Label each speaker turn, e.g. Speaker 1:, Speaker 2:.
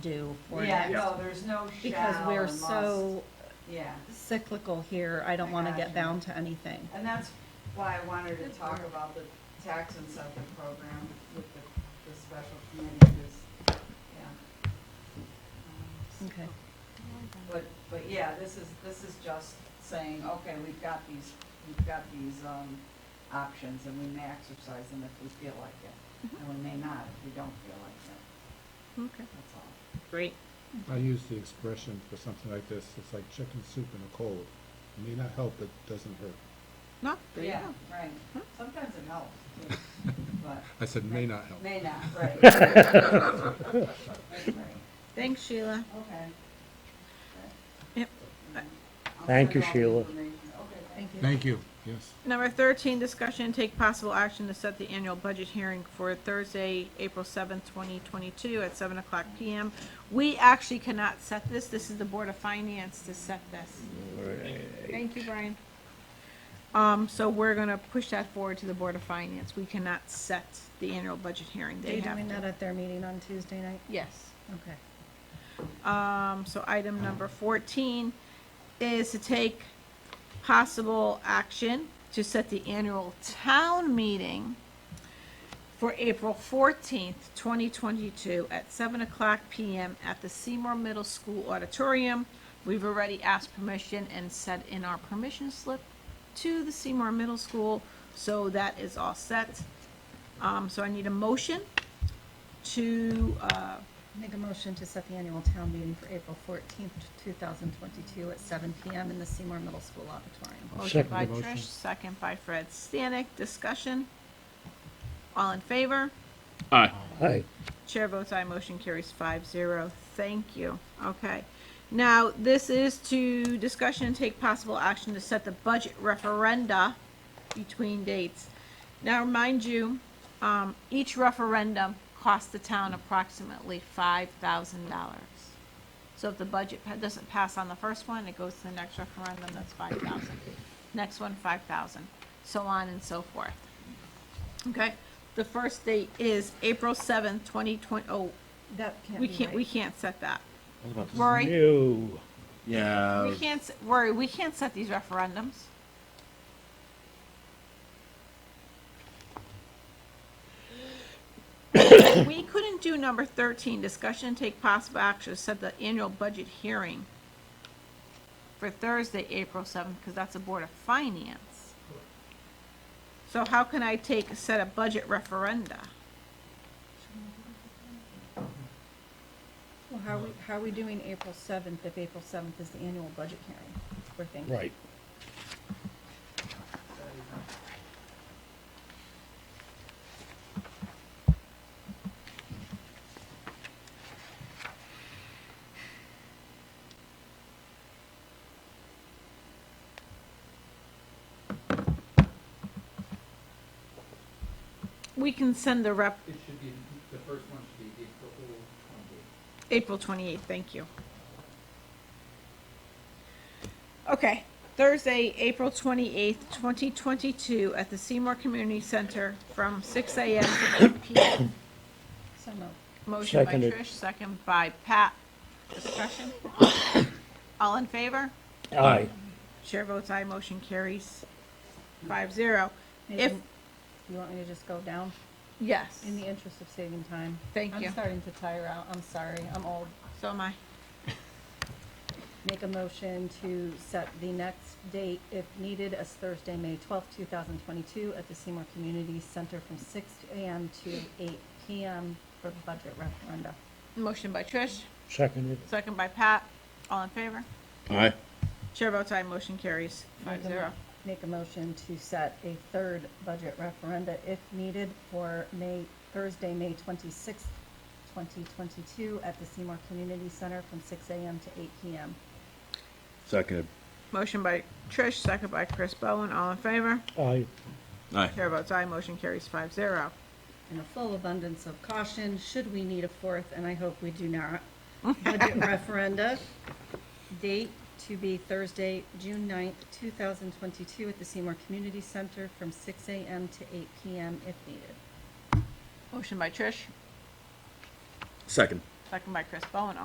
Speaker 1: do for
Speaker 2: Yeah,
Speaker 1: next.
Speaker 2: no, there's no
Speaker 1: Because
Speaker 2: shall
Speaker 1: we're
Speaker 2: or must.
Speaker 1: so
Speaker 2: Yeah,
Speaker 1: cyclical here, I don't
Speaker 2: I
Speaker 1: wanna
Speaker 2: got
Speaker 1: get
Speaker 2: you.
Speaker 1: bound to anything.
Speaker 2: and that's why I wanted to talk about the tax incentive program with the, the special committee, 'cause, yeah. Um,
Speaker 1: Okay,
Speaker 2: But, but yeah, this is, this is just saying, okay, we've got these, we've got these, um, options and we may exercise them if we feel like it. And we may not if we don't feel like it,
Speaker 1: Mm-hmm. okay,
Speaker 2: that's all.
Speaker 1: great.
Speaker 3: I use the expression for something like this, it's like chicken soup in a cold. It may not help, but doesn't hurt.
Speaker 1: No, there you
Speaker 2: Yeah,
Speaker 1: go.
Speaker 2: right. Sometimes it helps, too, but
Speaker 3: I said may not help.
Speaker 2: may not, right. Right, right.
Speaker 1: Thanks, Sheila.
Speaker 2: Okay.
Speaker 1: Yep.
Speaker 2: I'll
Speaker 4: Thank
Speaker 2: send
Speaker 4: you,
Speaker 2: all the
Speaker 4: Sheila.
Speaker 2: information. Okay, thank you.
Speaker 3: Thank you, yes.
Speaker 5: Number 13, discussion and take possible action to set the annual budget hearing for Thursday, April 7th, 2022 at 7 o'clock PM. We actually cannot set this. This is the Board of Finance to set this. Thank you, Brian. Um, so we're gonna push that forward to the Board of Finance. We cannot set the annual budget hearing.
Speaker 1: They
Speaker 5: They have
Speaker 1: doing that
Speaker 5: to.
Speaker 1: at their meeting on Tuesday night?
Speaker 5: Yes.
Speaker 1: Okay.
Speaker 5: Um, so item number fourteen is to take possible action to set the annual town meeting for April fourteenth, twenty twenty-two at seven o'clock PM at the Seymour Middle School Auditorium. We've already asked permission and sent in our permission slip to the Seymour Middle School, so that is all set. Um, so I need a motion to, uh,
Speaker 1: Make a motion to set the annual town meeting for April fourteenth, two thousand twenty-two at seven PM in the Seymour Middle School Auditorium.
Speaker 5: Motion
Speaker 4: Second
Speaker 5: by
Speaker 3: the motion.
Speaker 5: Trish, second by Fred Stanek, discussion. All in favor?
Speaker 6: Aye.
Speaker 4: Aye.
Speaker 5: Chair votes aye, motion carries five zero. Thank you. Okay. Now, this is to discussion and take possible action to set the budget referenda between dates. Now, mind you, um, each referendum costs the town approximately five thousand dollars. So if the budget pa- doesn't pass on the first one, it goes to the next referendum, that's five thousand. Next one, five thousand, so on and so forth. Okay, the first date is April seventh, twenty twenty, oh,
Speaker 1: That can't
Speaker 5: we
Speaker 1: be
Speaker 5: can't,
Speaker 1: right.
Speaker 5: we can't set that. Rory,
Speaker 4: No.
Speaker 6: Yeah.
Speaker 5: we can't, s- Rory, we can't set these referendums. We couldn't do number thirteen, discussion and take possible action, to set the annual budget hearing for Thursday, April seventh, because that's a Board of Finance. So how can I take, set a budget referenda?
Speaker 1: Well, how are we, how are we doing April seventh if April seventh is the annual budget hearing? We're thinking.
Speaker 4: Right.
Speaker 5: We can send the rep,
Speaker 7: It should be, the first one should be April twenty-eighth.
Speaker 5: April 28th, thank you. Okay, Thursday, April 28th, 2022, at the Seymour Community Center from 6 a.m. to 8 p.m.
Speaker 1: So no.
Speaker 5: Motion by
Speaker 4: Seconded.
Speaker 5: Trish, second by Pat. Discussion? All in favor?
Speaker 4: Aye.
Speaker 5: Chair votes aye, motion carries 5-0. If,
Speaker 1: Maybe- You want me to just go down?
Speaker 5: yes,
Speaker 1: In the interest of saving time.
Speaker 5: Thank you.
Speaker 1: I'm starting to tire out, I'm sorry, I'm old.
Speaker 5: so am I.
Speaker 1: Make a motion to set the next date, if needed, as Thursday, May twelfth, two thousand twenty-two, at the Seymour Community Center from six AM to eight PM for budget referenda.
Speaker 5: Motion by Trish,
Speaker 4: Seconded.
Speaker 5: second by Pat. All in favor?
Speaker 6: Aye.
Speaker 5: Chair votes aye, motion carries 5-0.
Speaker 1: Make a motion to set a third budget referenda, if needed, for May, Thursday, May twenty-sixth, twenty twenty-two, at the Seymour Community Center from six AM to eight PM.
Speaker 6: Seconded.
Speaker 5: Motion by Trish, second by Chris Bowen, all in favor?
Speaker 4: Aye.
Speaker 6: Aye.
Speaker 5: Chair votes aye, motion carries five zero.
Speaker 1: in a full abundance of caution, should we need a fourth, and I hope we do not, budget referenda, date to be Thursday, June 9th, two thousand twenty-two, at the Seymour Community Center from six AM to eight PM if needed.
Speaker 5: Motion by Trish,
Speaker 6: Second.
Speaker 5: Second by Chris Bowen,